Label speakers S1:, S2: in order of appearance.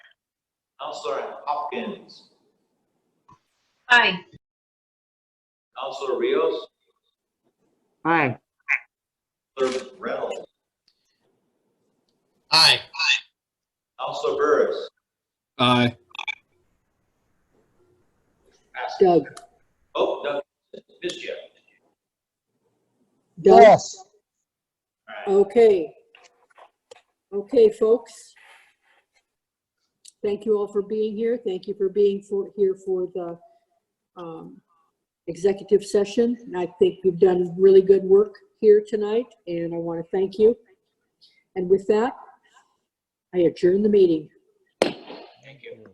S1: Counselor Hopkins,
S2: Aye.
S1: Counselor Rios,
S3: Aye.
S1: Counselor Reynolds,
S4: Aye.
S1: Counselor Burris,
S5: Aye.
S1: passes.
S3: Doug,
S1: Oh, no, missed you.
S3: Doug,
S1: All right,
S3: okay. Okay, folks. Thank you all for being here. Thank you for being for, here for the, um, executive session. And I think you've done really good work here tonight, and I want to thank you. And with that, I adjourn the meeting.